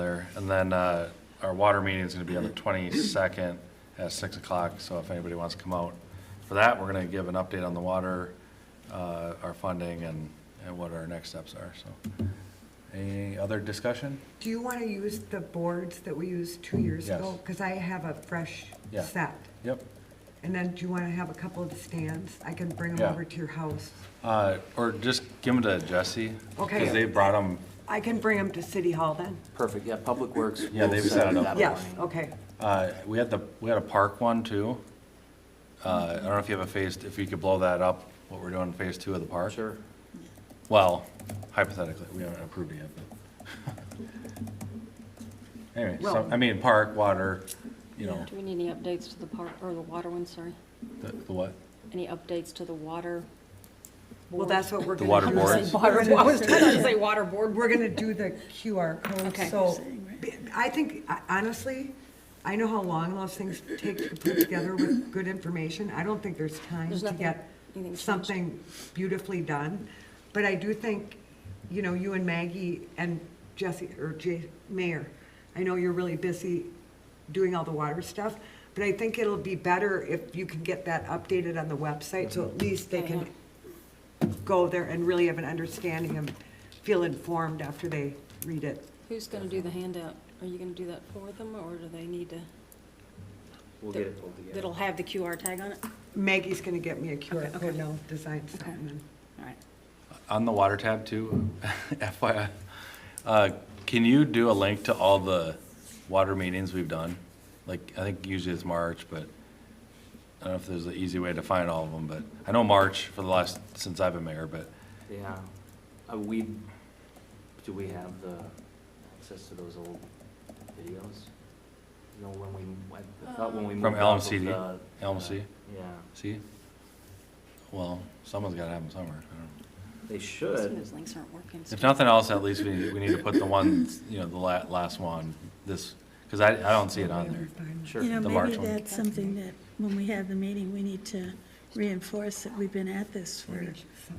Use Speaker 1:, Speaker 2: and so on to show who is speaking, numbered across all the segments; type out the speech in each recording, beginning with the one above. Speaker 1: And then uh, our water meeting is going to be on the 22nd at 6 o'clock, so if anybody wants to come out for that, we're going to give an update on the water, uh, our funding, and, and what our next steps are, so. Any other discussion?
Speaker 2: Do you want to use the boards that we used two years
Speaker 1: Yes.
Speaker 2: ago? Because I have a fresh
Speaker 1: Yeah.
Speaker 2: set.
Speaker 1: Yep.
Speaker 2: And then do you want to have a couple of the stands? I can bring
Speaker 1: Yeah.
Speaker 2: them over to your house.
Speaker 1: Uh, Or just give them to Jesse.
Speaker 2: Okay.
Speaker 1: Because they brought them,
Speaker 2: I can bring them to City Hall then?
Speaker 3: Perfect, yeah, Public Works.
Speaker 1: Yeah, they've set it up.
Speaker 2: Yes, okay.
Speaker 1: uh, we had the, we had a park one too. Uh, I don't know if you have a phase, if you could blow that up, what we're doing in phase two of the park.
Speaker 3: Sure.
Speaker 1: Well, hypothetically, we haven't approved it yet, but. Anyway, so, I mean, park, water, you know,
Speaker 4: Do we need any updates to the park, or the water one, sorry?
Speaker 1: the, the what?
Speaker 4: Any updates to the water?
Speaker 2: Well, that's what we're
Speaker 1: The
Speaker 2: going to
Speaker 1: water
Speaker 2: do.
Speaker 1: boards?
Speaker 2: We're
Speaker 4: I
Speaker 2: gonna
Speaker 4: was
Speaker 2: do-
Speaker 4: gonna say water board.
Speaker 2: We're going to do the QR code,
Speaker 4: Okay.
Speaker 2: so b- I think, I- honestly, I know how long those things take to put together with good information. I don't think there's time
Speaker 4: There's
Speaker 2: to
Speaker 4: nothing-
Speaker 2: get
Speaker 4: anything's changed.
Speaker 2: something beautifully done. But I do think, you know, you and Maggie and Jesse, or Jay, Mayor, I know you're really busy doing all the water stuff, but I think it'll be better if you can get that updated on the website,
Speaker 4: Mm-hmm.
Speaker 2: so at least they can go there and really have an understanding and feel informed after they read it.
Speaker 4: Who's gonna do the handout? Are you gonna do that for them, or do they need to,
Speaker 3: We'll get it pulled together.
Speaker 4: that'll have the QR tag on it?
Speaker 2: Maggie's gonna get me a QR
Speaker 4: Okay,
Speaker 2: code
Speaker 4: okay.
Speaker 2: now, design
Speaker 4: Okay.
Speaker 2: something. and-
Speaker 4: All right.
Speaker 1: On the water tab too, FYI, uh, can you do a link to all the water meetings we've done? Like, I think usually it's March, but I don't know if there's an easy way to find all of them, but I know March for the last, since I've been mayor, but
Speaker 3: Yeah, Uh, we, do we have the access to those old videos? You know, when we, I thought when we moved.
Speaker 1: From
Speaker 3: off of
Speaker 1: LMCD?
Speaker 3: the-
Speaker 1: LMC?
Speaker 3: Yeah,
Speaker 1: see? Well, someone's gotta have them somewhere. I don't know.
Speaker 3: they
Speaker 4: Some of
Speaker 3: should,
Speaker 4: those links aren't working. so-
Speaker 1: If nothing else, at least we, need- we need to put the ones, you know, the la- last one, this, because I, I don't see it on there.
Speaker 3: sure.
Speaker 5: You know,
Speaker 1: The March
Speaker 5: maybe
Speaker 1: one.
Speaker 5: that's something that, when we have the meeting, we need to reinforce that we've been at this for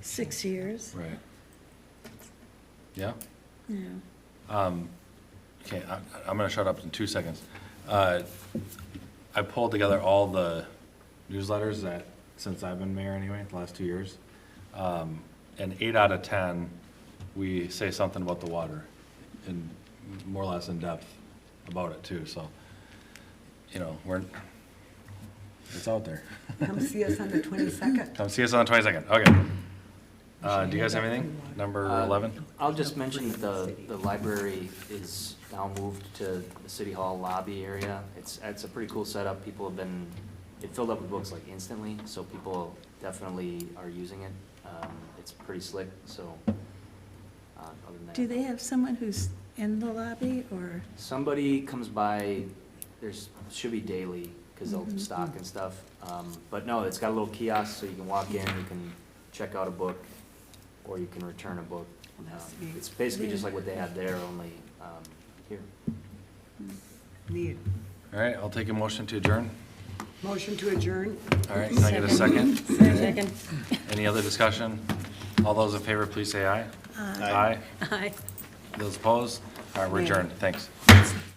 Speaker 5: six years,
Speaker 1: Right. Yeah?
Speaker 5: you know.
Speaker 1: Um, Okay, I- I'm going to shut up in two seconds. Uh, I pulled together all the newsletters that, since I've been mayor anyway, the last two years. Um, And eight out of 10, we say something about the water and more or less in depth about it too, so, you know, we're, it's out there.
Speaker 2: Come see us on the twenty-second.
Speaker 1: Come see us on the 22nd, okay. Uh, Do you guys have anything? Number
Speaker 3: Uh,
Speaker 1: 11?
Speaker 3: I'll just mention that the, the library is now moved to the city hall lobby area. It's, it's a pretty cool setup. People have been, it filled up with books like instantly, so people definitely are using it. Um, it's pretty slick, so, uh, other than that.
Speaker 5: Do they have someone who's in the lobby or,
Speaker 3: Somebody comes by, there's, should be daily, because they'll
Speaker 2: Mm-hmm.
Speaker 5: Mhm.
Speaker 3: stock and stuff. Um, But no, it's got a little kiosk, so you can walk in, you can check out a book, or you can return a book.
Speaker 2: Well, that's
Speaker 3: Um,
Speaker 2: neat.
Speaker 3: It's basically just like what they had there, only um, here.
Speaker 2: Need,
Speaker 1: All right, I'll take a motion to adjourn.
Speaker 2: motion to adjourn?
Speaker 1: All right, can I get a second?
Speaker 4: Second.
Speaker 1: Any other discussion? All those in favor, please say aye. Aye.
Speaker 4: Aye.
Speaker 1: Those opposed? All right, we're
Speaker 2: Nay.
Speaker 1: adjourned, thanks.